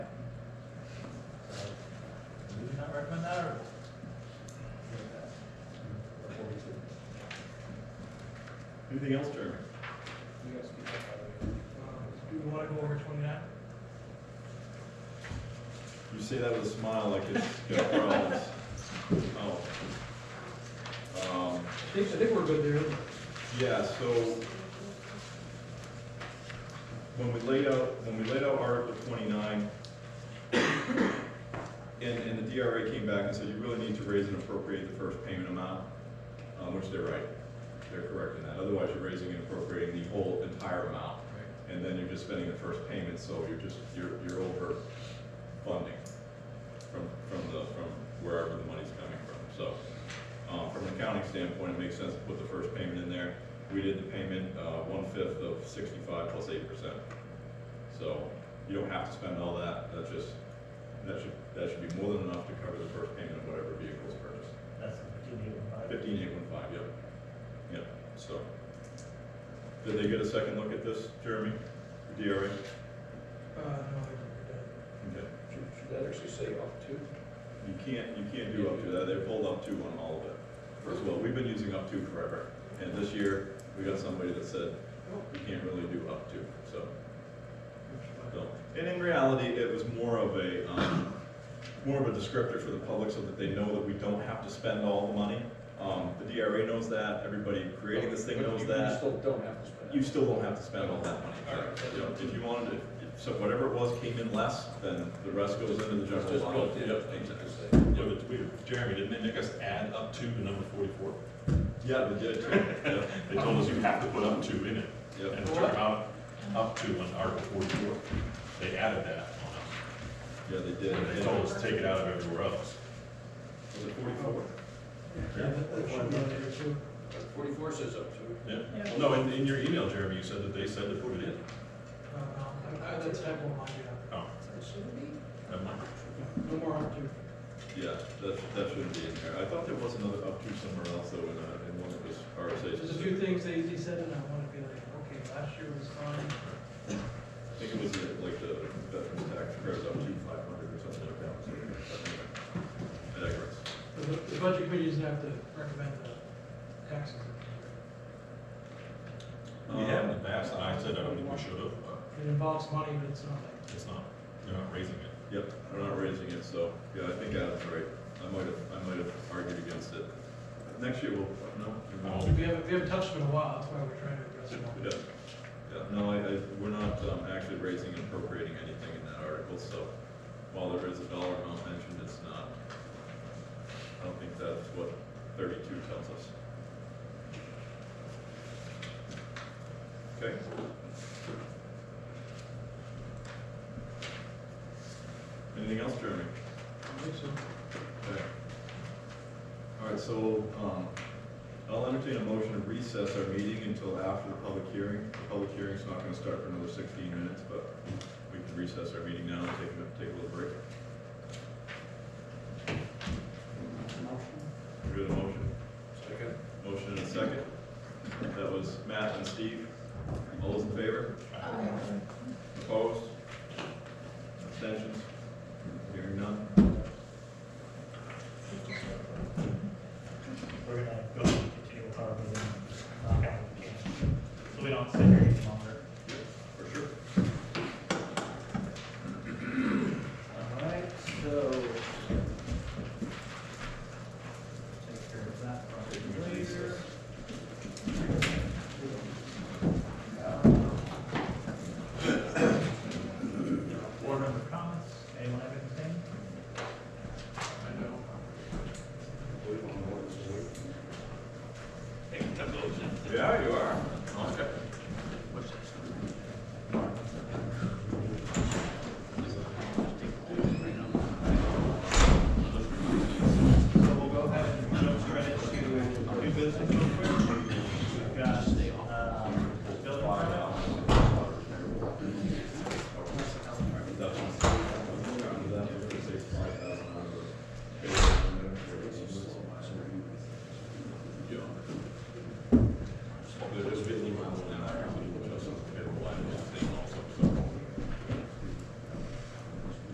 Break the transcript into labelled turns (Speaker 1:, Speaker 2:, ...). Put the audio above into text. Speaker 1: or Minerva?
Speaker 2: Anything else, Jeremy?
Speaker 1: Do we want to go over twenty-nine?
Speaker 2: You say that with a smile like it's got problems. Oh. Um,
Speaker 3: I think, I think we're good there.
Speaker 2: Yeah, so when we laid out, when we laid out Article twenty-nine, and, and the DRA came back and said, you really need to raise and appropriate the first payment amount, um, which they're right, they're correct in that, otherwise you're raising and appropriating the whole entire amount. And then you're just spending the first payment, so you're just, you're, you're over funding from, from the, from wherever the money's coming from, so. Um, from an accounting standpoint, it makes sense to put the first payment in there. We did the payment, uh, one-fifth of sixty-five plus eight percent. So you don't have to spend all that, that's just, that should, that should be more than enough to cover the first payment of whatever vehicle is purchased.
Speaker 1: That's fifteen eighty-five.
Speaker 2: Fifteen eight one five, yep, yep, so. Did they get a second look at this, Jeremy, the DRA?
Speaker 1: Uh, no, I think
Speaker 2: Okay.
Speaker 3: Should, should that actually say up to?
Speaker 2: You can't, you can't do up to that, they pulled up two on all of it. First of all, we've been using up two forever, and this year, we got somebody that said, you can't really do up to, so,
Speaker 1: we're done.
Speaker 2: no. And in reality, it was more of a, um, more of a descriptor for the public so that they know that we don't have to spend all the money. Um, the DRA knows that, everybody creating this thing
Speaker 3: But
Speaker 2: knows
Speaker 3: you- You
Speaker 2: that,
Speaker 3: still don't have to spend.
Speaker 2: you
Speaker 3: it.
Speaker 2: still don't have to spend all that money.
Speaker 3: All right.
Speaker 2: You know, If you wanted to, so whatever it was came in less, then the rest goes into the
Speaker 3: It's
Speaker 2: general
Speaker 3: just
Speaker 2: fund.
Speaker 3: built in.
Speaker 2: Yep, exactly.
Speaker 4: Yeah, but we, Jeremy, didn't they make us add up to the number forty-four?
Speaker 2: Yeah, they did too. Yeah.
Speaker 4: They told us you have to put up to in it,
Speaker 2: Yep.
Speaker 4: and it turned out up to on Article forty-four. They added that on
Speaker 2: Yeah, they did.
Speaker 4: us, and they told us to take it out of everywhere else.
Speaker 2: Was it forty-four?
Speaker 1: Yeah, that that should be on there too.
Speaker 3: Forty-four says up to.
Speaker 4: Yeah,
Speaker 1: Yeah.
Speaker 4: no, in, in your email, Jeremy, you said that they said to put it in.
Speaker 1: No, no, I- I- that's type one, yeah.
Speaker 4: Oh, never mind.
Speaker 1: No more up to.
Speaker 2: Yeah, that, that shouldn't be in there. I thought there was another up to somewhere else though, in, uh, in one of those RSA's.
Speaker 1: There's a few things they, they said, and I want to be like, okay, last year was fine.
Speaker 2: I think it was the- like the veterans tax credit up to five hundred or something like that. So, anyway, I digress.
Speaker 1: The, bu- the budget committee doesn't have to recommend the taxes.
Speaker 4: We have in
Speaker 2: Um,
Speaker 4: the past, and I said, I don't think we should have, but
Speaker 1: It involves money, but it's not like,
Speaker 4: it's not, they're not raising it.
Speaker 2: Yep, we're not raising it, so, yeah, I think Adam's right. I might have, I might have argued against it. Next year we'll, no? we won't.
Speaker 4: No.
Speaker 1: we haven't, we haven't touched it in a while, that's why we're trying to address it.
Speaker 2: Yeah, yeah, no, I, I, we're not, um, actually raising and appropriating anything in that article, so while there is a dollar amount mentioned, it's not, I don't think that's what thirty-two tells us. Okay? Anything else, Jeremy?
Speaker 1: I think so.
Speaker 2: Okay. All right, so, um, I'll entertain a motion to recess our meeting until after the public hearing. The public hearing's not gonna start for another sixteen minutes, but we can recess our meeting now and take, a- take a little break. We got a motion,
Speaker 3: Second.
Speaker 2: motion and a second. That was Matt and Steve. All those in favor? Opposed? Abstentions?